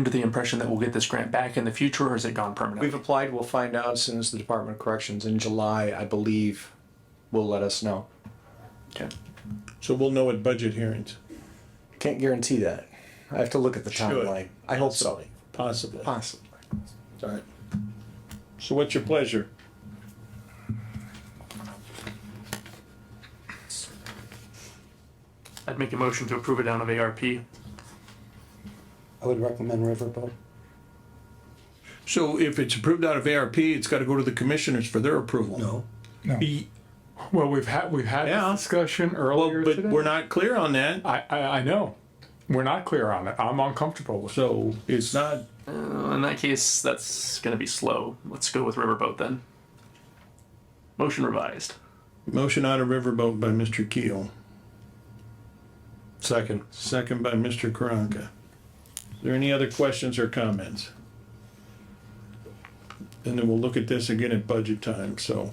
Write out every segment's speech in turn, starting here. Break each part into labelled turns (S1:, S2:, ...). S1: under the impression that we'll get this grant back in the future, or is it gone permanently?
S2: We've applied, we'll find out as soon as the Department of Corrections in July, I believe, will let us know.
S3: So we'll know at budget hearings,
S2: Can't guarantee that. I have to look at the timeline. I hope so.
S3: possibly.
S2: Possibly.
S3: Alright. So what's your pleasure?
S1: I'd make a motion to approve it out of ARP.
S4: I would recommend Riverboat.
S3: So if it's approved out of ARP, it's gotta go to the commissioners for their approval.
S4: No.
S3: E-
S5: Well, we've had, we've had
S3: Yeah.
S5: this discussion
S3: Well,
S5: earlier
S3: but we're
S5: today.
S3: not clear on that,
S5: I, I, I know. We're not clear on it. I'm uncomfortable with it.
S3: so it's not,
S1: Well, in that case, that's going to be slow. Let's go with Riverboat then. Motion revised.
S3: motion out of Riverboat by Mr. Keel,
S2: Second.
S3: second by Mr. Karanka. Is there any other questions or comments? And then we'll look at this again at budget time, so.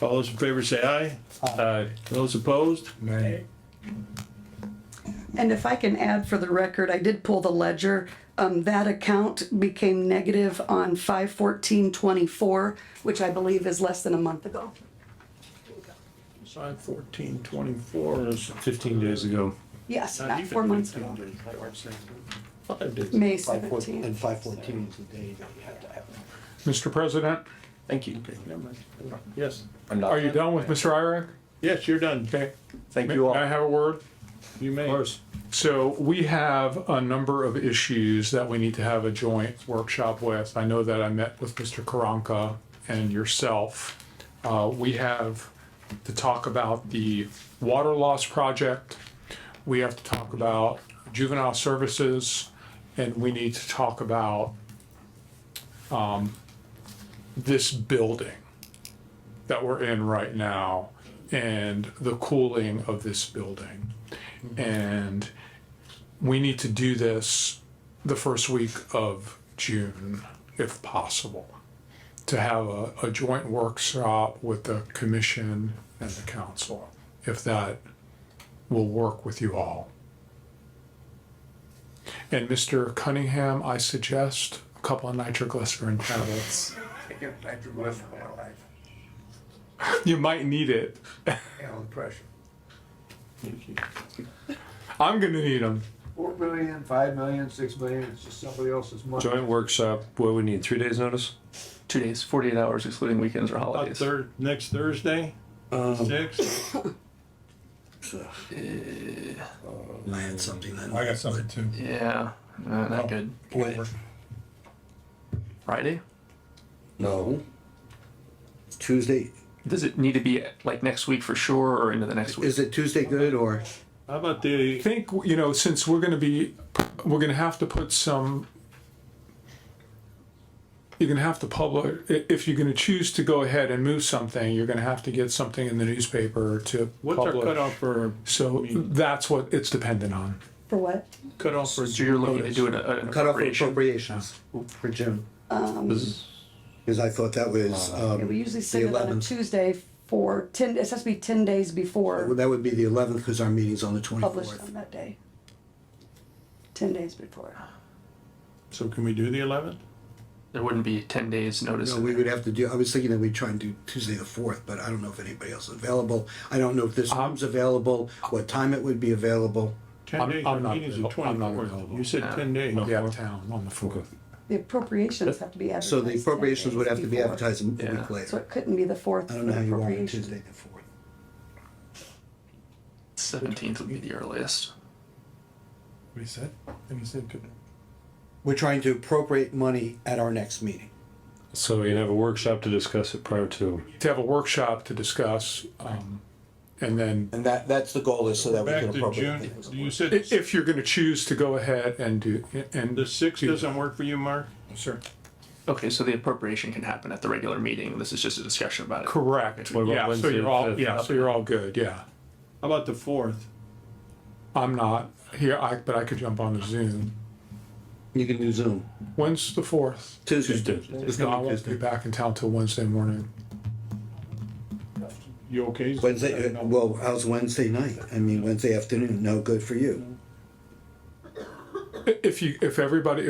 S3: All those in favor say aye,
S5: Uh,
S3: those opposed?
S6: And if I can add for the record, I did pull the ledger. Um, that account became negative on five fourteen twenty-four, which I believe is less than a month ago.
S3: Five fourteen twenty-four is
S7: Fifteen days ago.
S6: Yes, not four months ago,
S3: five days.
S6: May
S4: Five fourteen,
S6: seventeenth.
S4: and five fourteen is the day that you had to have. it.
S5: Mr. President,
S2: Thank you.
S3: Yes,
S2: I'm not.
S5: are you done with Mr. Irick?
S3: yes, you're done.
S5: Okay.
S2: Thank
S5: May
S2: you
S5: may I
S2: all.
S5: have a word?
S3: You may.
S5: So we have a number of issues that we need to have a joint workshop with. I know that I met with Mr. Karanka and yourself. Uh, we have to talk about the water loss project. We have to talk about juvenile services and we need to talk about um, this building that we're in right now and the cooling of this building and we need to do this the first week of June, if possible, to have a, a joint workshop with the commission and the council, if that will work with you all. And Mr. Cunningham, I suggest a couple of nitroglycerin tablets. You might need it. I'm gonna need them.
S8: Four million, five million, six million, it's just somebody else's money.
S7: Joint workshop, what we need, three days notice?
S1: Two days, 48 hours excluding weekends or
S3: About
S1: holidays.
S3: third, next Thursday, six,
S4: I had something then.
S3: I got something
S4: too.
S1: Yeah, uh, not good. Friday?
S4: No. It's Tuesday,
S1: Does it need to be like next week for sure or into the next week?
S4: is it Tuesday good or?
S3: how about
S5: I
S3: the,
S5: think you know since we're going to be we're going to have to put some you're going to have to publish i- if you're going to choose to go ahead and move something you're going to have to get something in the newspaper to
S3: what's our
S5: publish.
S3: cutoff for,
S5: so that's what it's dependent on
S6: For what?
S4: Mm-hmm.
S3: cutoff for?
S1: So you're looking to do an, an
S4: Cut off
S1: appropriation?
S4: appropriations for June. Cause I thought that was,
S6: Yeah, We
S4: um,
S6: usually send it on a
S4: 11th.
S6: Tuesday for ten, it has to be ten days before
S4: that would be the eleventh, cause our meeting's on the
S6: published
S4: twenty-fourth.
S6: on that day. Ten days before.
S3: So can we do the eleventh?
S1: There wouldn't be 10 days notice.
S4: No, we would have to do, I was thinking that we'd try and do Tuesday the fourth, but I don't know if anybody else is available. I don't know if this room's available, what time it would be available.
S3: Ten
S5: I'm-
S3: days,
S5: I'm
S3: our
S5: not
S3: meeting's the
S5: available. I'm not
S3: twenty-fourth.
S5: available.
S3: You said ten days.
S5: yeah town on the fourth
S6: The appropriations have to be advertised.
S4: So the
S6: 10
S4: appropriations would
S6: days
S4: have to be
S6: before.
S4: advertised a week
S6: So
S4: later.
S6: it couldn't be the fourth.
S4: I don't know how you want it
S6: appropriation.
S4: Tuesday the fourth.
S1: 17th would be the earliest.
S3: What he said? And he said, good.
S4: We're trying to appropriate money at our next meeting.
S7: So you can have a workshop to discuss it prior to.
S5: to have a workshop to discuss um, and then
S4: And that, that's the goal is so that we
S3: Back
S4: can
S3: to
S4: appropriate.
S3: June,
S4: things.
S3: you
S5: i-
S3: said
S5: if you're going to choose to go ahead and do and
S3: the sixth
S5: do-
S3: doesn't work for you, Mark?
S5: sure
S1: Okay, so the appropriation can happen at the regular meeting. This is just a discussion about it.
S5: correct
S7: What about
S5: yeah so
S7: Wednesday,
S5: you're all
S7: fifth?
S5: yeah so you're all good yeah
S3: How about the fourth?
S5: I'm not here, I, but I could jump on the Zoom.
S4: You can do Zoom.
S5: When's the fourth?
S4: Tuesday.
S5: If not, I won't be back in town till Wednesday morning.
S3: You okay?
S4: Wednesday, uh, well, how's Wednesday night? I mean, Wednesday afternoon, no good for you.
S5: If you, if everybody,